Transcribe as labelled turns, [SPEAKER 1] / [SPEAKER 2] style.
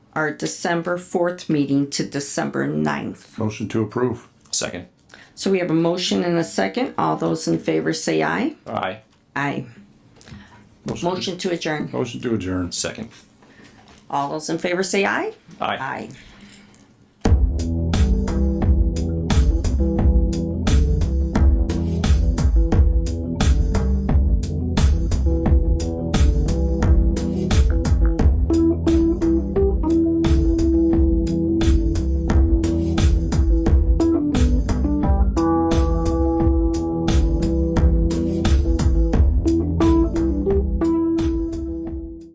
[SPEAKER 1] our December fourth meeting to December 9th.
[SPEAKER 2] Motion to approve.
[SPEAKER 3] Second.
[SPEAKER 1] So we have a motion and a second. All those in favor say aye.
[SPEAKER 3] Aye.
[SPEAKER 1] Aye. Motion to adjourn.
[SPEAKER 2] Motion to adjourn.
[SPEAKER 3] Second.
[SPEAKER 1] All those in favor say aye.
[SPEAKER 3] Aye.
[SPEAKER 1] Aye.